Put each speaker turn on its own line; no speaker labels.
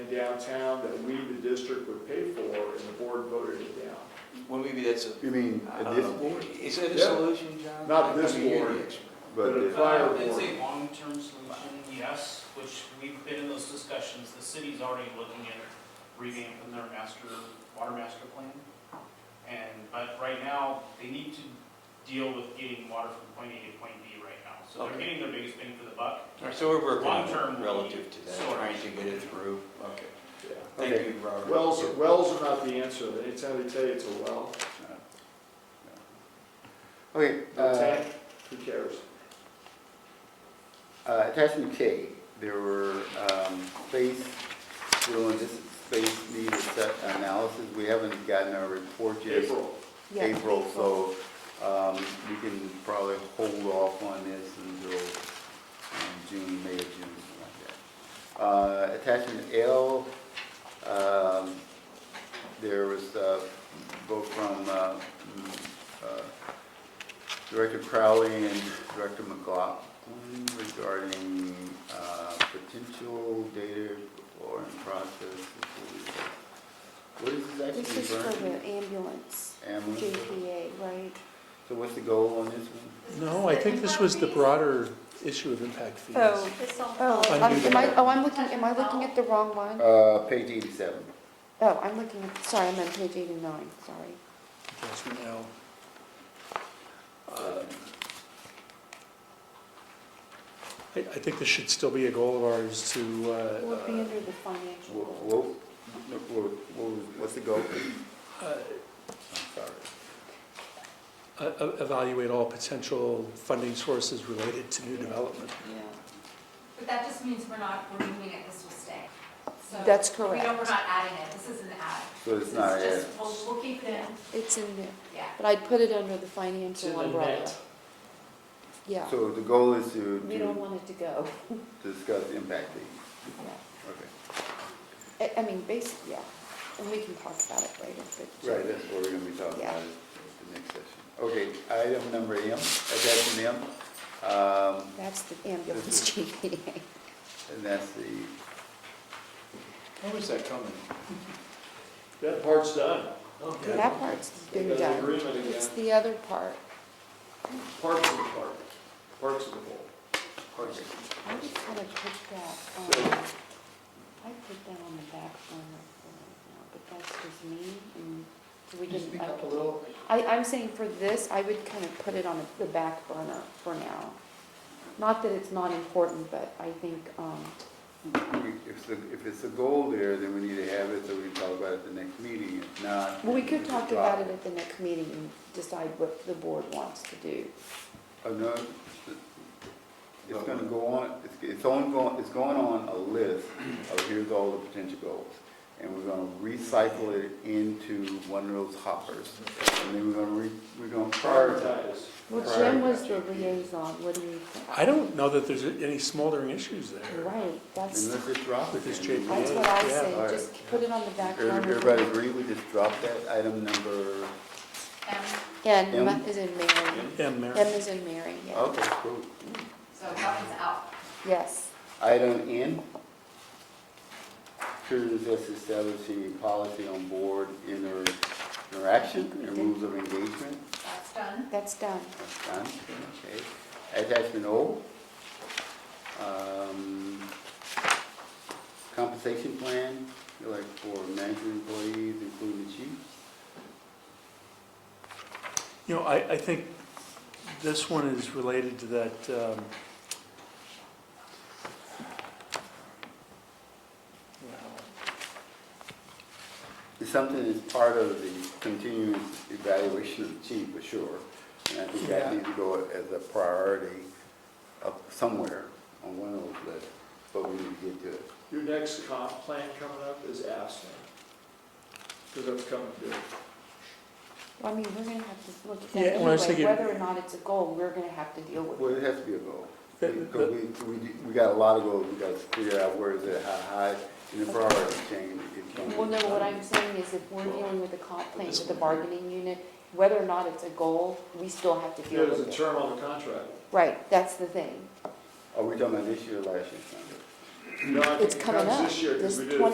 downtown that we, the district, would pay for, and the board voted it down.
Well, maybe that's a,
You mean
I
at
Uh,
don't
this
know.
board?
is that a
Yeah.
solution, John?
Not
I
this
mean, you're the
board.
expert.
But
But-
if-
Fire
Uh, It's
board.
a long-term solution, yes, which we've been in those discussions. The city's already looking at revamping their master, water master plan. And, but right now, they need to deal with getting water from point A to point B right now. So they're
Okay.
getting their biggest bang for the buck.
All right, so we're working on
Long-term
it
will
relative
be
to that,
sorted.
trying to get it through. Okay.
Yeah.
Thank
Okay.
you, Robert.
Wells, wells are not the answer. Anytime they tell you it's a well,
Okay,
a
uh,
tank, who cares?
uh, attachment K, there were, um, space, little, this space need set analysis. We haven't gotten our report yet.
April,
Yeah.
April, so um, we can probably hold off on this until um, June, May or June, something like that. Uh, Attachment L, um, there was a vote from uh, mm, uh, Director Crowley and Director McLaughlin regarding uh, potential data or in process. What is this actually?
This is
referring
for
to?
the ambulance,
Ambulance?
JPA, right?
So what's the goal on this one?
No, I think this was the broader issue of impact fees.
Oh, oh,
Undo
I'm- am I,
that.
oh, I'm looking, am I looking at the wrong one?
Uh, page eighty-seven.
Oh, I'm looking at, sorry, I'm on page eighty-nine, sorry.
Attachment L. um, I, I think this should still be a goal of ours to,
It would be
uh,
under the financial.
What,
goal.
what, what- what's the goal?
uh,
I'm sorry.
e- e- evaluate all potential funding sources related to new development.
Yeah,
But that just means we're not removing it, this will stay. So
That's
We know we're
correct.
not adding it, this isn't added.
So it's not
This
a,
is just, we'll, we'll keep it in,
It's in there,
yeah.
but I'd put it under the financial umbrella. Yeah,
so the goal is to,
we don't
to
want it to go,
discuss impact fees.
yeah.
Okay.
I, I mean, basically, yeah, and we can talk about it later, but.
Right, that's what we're gonna be talking
Yeah.
about at the next session. Okay, item number M, attachment M, um,
That's the ambulance JPA.
and that's the,
When was that coming?
that part's done.
That part's been
Got the
done.
Agreement
It's
again,
the other part.
parts of the park, parts of the whole.
okay.
I just kind of put that, um, I put that on the back burner for right now, but that's just me and so we didn't. Speak up a little. I, I'm saying for this, I would kind of put it on the back burner for now. Not that it's not important, but I think, um,
We- If it's, a- if it's a goal there, then we need to have it, so we can talk about it at the next meeting. If not.
well, we
then
could
just
talk
drop
about it at the next meeting and decide what the board wants to do.
Oh, no, it's- it's gonna go on, it's, it's on, go- it's going on a list of here's all the potential goals. And we're gonna recycle it into one of those hoppers. And then we're gonna re, we're gonna prioritize.
Prioritize.
Well,
Right.
Jim was the liaison, what do you
I
think?
don't know that there's any smoldering issues there.
Right, that's,
And
that's
let's just drop it.
With this
then.
JPA.
what I
Yeah,
say,
all right.
just put it on the back burner. for
Everybody
now.
agree, we just drop that item number,
And
And
M?
M is in Mary.
M, Mary.
M is in Mary,
Oh.
yeah.
okay, cool.
so that one's out.
Yes.
Item N, to discuss establishing a policy on board inter- interaction and rules of engagement.
That's done.
That's done.
That's done, okay. Attachment O. Um, Compensation plan, like for management employees, including the chief.
You know, I, I think this one is related to that, um,
It's something that's part of the continuous evaluation of the chief, for sure. And I think that
Yeah.
needs to go as a priority up somewhere on one of those lists, but we need to get to it.
Your next comp plan coming up is Aspen, because that's coming due.
Well, I mean, we're gonna have to look at
Yeah,
that
well, I was
anyway,
thinking-
whether or not it's a goal, we're gonna have to deal with
Well,
it.
it has to be a goal.
The-
Because we, we, we got a lot of goals, we gotta figure out where is it, how high, and the priority change. it can be-
Well, no, what I'm saying is if we're dealing with the comp plan with the bargaining unit, whether or not it's a goal, we still have to deal
There's a
with it.
term on the contract.
Right, that's the thing.
Are we talking about this year or last year? Sandra?
No, I think
It's
it
coming
comes
up,
This year, 'cause
this
we did it
20